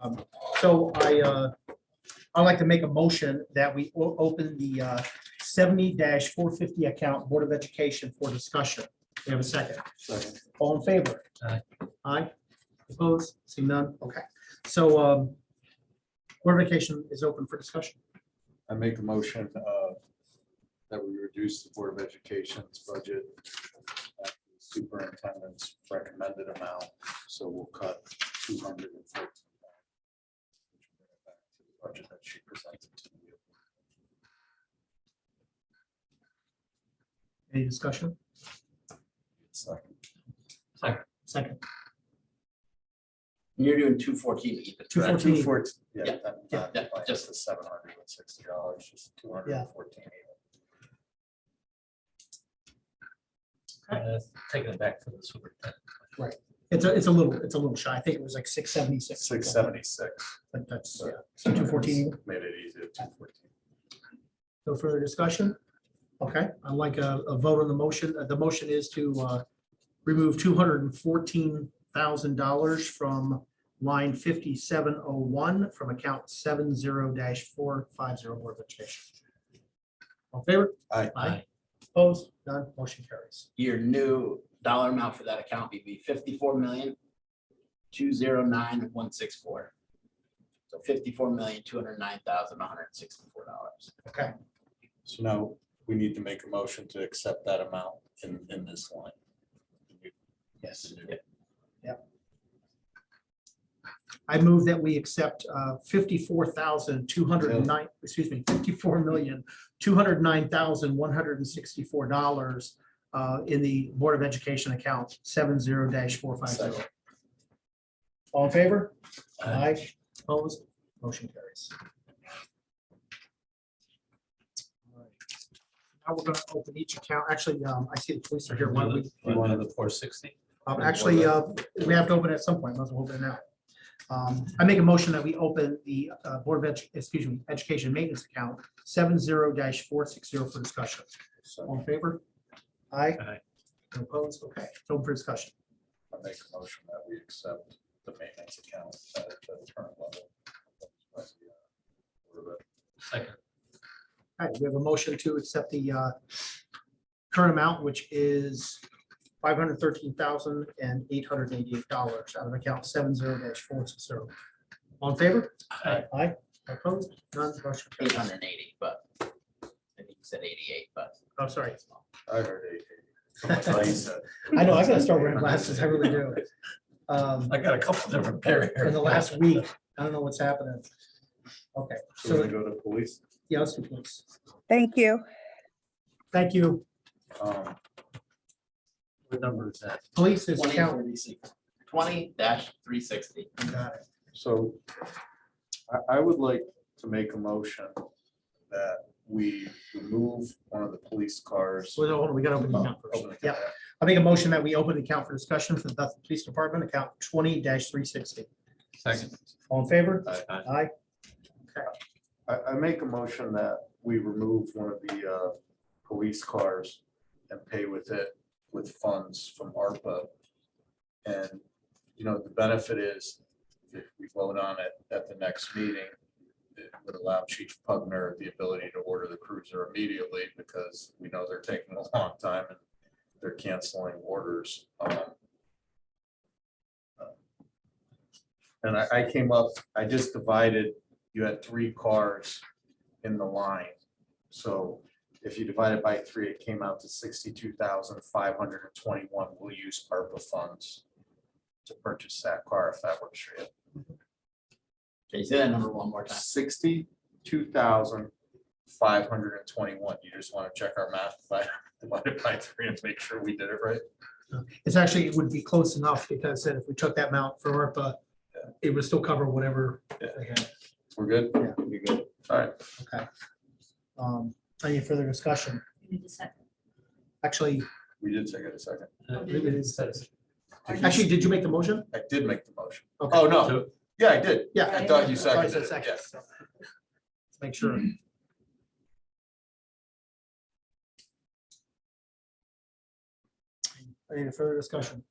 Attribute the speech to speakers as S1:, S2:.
S1: Um, So I, uh, I'd like to make a motion that we o- open the uh, seventy four fifty account Board of Education for discussion. We have a second.
S2: Second.
S1: All in favor?
S3: Aye.
S1: Aye. Opposed? See none? Okay. So um, Board of Education is open for discussion.
S2: I make a motion uh, that we reduce the Board of Education's budget at the superintendent's recommended amount, so we'll cut two hundred and fourteen. Budget that she presented to you.
S1: Any discussion?
S2: Second.
S1: Second.
S4: You're doing two fourteen even.
S1: Two
S4: correct?
S1: fourteen.
S2: Yeah,
S4: Yeah,
S2: that-
S4: yeah,
S2: that,
S4: yeah,
S2: just the seven hundred and sixty dollars, just two hundred and fourteen.
S3: Uh, Taking it back to the superintendent.
S1: It's a, it's a little, it's a little shy. I think it was like six seventy six.
S2: Six seventy-six.
S1: But that's, yeah, so two fourteen.
S2: Made it easy, two fourteen.
S1: No further discussion? Okay, I'd like a, a vote on the motion. Uh, The motion is to uh, remove two hundred and fourteen thousand dollars from line fifty-seven oh one from account seven zero four five zero Board of Education. All in favor?
S2: Aye.
S1: Aye. Opposed? None. Motion carries.
S4: Your new dollar amount for that account would be fifty-four million, two zero nine, one six four. So fifty-four million, two hundred nine thousand, one hundred sixty-four dollars.
S1: Okay,
S2: So now we need to make a motion to accept that amount in, in this line. Yes.
S1: I move that we accept uh, fifty-four thousand two hundred and nine, excuse me, fifty-four million, two hundred nine thousand one hundred and sixty-four dollars uh, in the Board of Education account, seven zero four five zero. All in favor? Aye. Opposed? Motion carries. Now we're gonna open each account. Actually, um, I see the police are here. Why don't we-
S3: One of the four sixty.
S1: um, Actually, uh, we have to open at some point, let's open it now. Um, I make a motion that we open the uh, Board of, Edu- excuse me, Education Maintenance Account seven zero four six zero for discussion. All in favor? Aye.
S3: Aye.
S1: No Opposed? Okay, it's open for discussion.
S2: I make a motion that we accept the maintenance account at the current level.
S3: Second.
S1: All right, we have a motion to accept the uh, current amount, which is five hundred thirteen thousand and eight hundred eighty-eight dollars out of account seven zero four six zero. All in favor?
S3: Aye.
S1: Aye. Opposed? None. Motion
S4: Eight
S1: carries.
S4: hundred and eighty, but I think you said eighty-eight, but
S1: I'm sorry.
S2: I heard eight.
S1: I know, I gotta start wearing glasses, I really do. Um,
S3: I got a couple different pair here.
S1: in the last week, I don't know what's happening. Okay,
S2: So we're
S1: so,
S2: gonna go to police.
S1: yeah, let's do police.
S5: Thank you.
S1: Thank you.
S2: Um,
S3: What number is that?
S1: Police is
S4: twenty
S1: count.
S4: thirty-six, twenty dash three sixty.
S1: Got it.
S2: So I, I would like to make a motion that we remove one of the police cars. Oh,
S1: So, hold on, we gotta open the account first.
S2: Open the account.
S1: Yeah, I make a motion that we open the account for discussion for the Bethel Police Department, account twenty three sixty.
S3: Second.
S1: All in favor?
S2: Aye.
S1: Aye.
S2: I, I make a motion that we remove one of the uh, police cars and pay with it, with funds from ARPA. And, you know, the benefit is if we vote on it at the next meeting, it would allow Chief Pugner the ability to order the cruiser immediately because we know they're taking a long time and they're canceling orders. Um, And I, I came up, I just divided you had three cars in the line. So if you divide it by three, it came out to sixty-two thousand five hundred and twenty-one. We'll use ARPA funds to purchase that car if that works for you.
S4: Can you say that number one more time?
S2: Sixty-two thousand five hundred and twenty-one. You just want to check our math, by divided by three and make sure we did it right.
S1: It's actually, it would be close enough because then if we took that amount for ARPA, it would still cover whatever.
S2: Yeah.
S1: they had.
S2: We're good?
S1: Yeah.
S2: You're good. All right.
S1: Okay. Um, Any further discussion?
S6: You need a second.
S1: Actually,
S2: We did take it a second.
S1: it is- actually, did you make the motion?
S2: I did make the motion.
S1: Okay.
S2: Oh, no. Yeah, I did.
S1: Yeah. I
S2: I thought you
S1: thought you
S2: seconded it.
S1: said
S2: Yeah.
S1: second, so. Let's Make sure. Any further discussion?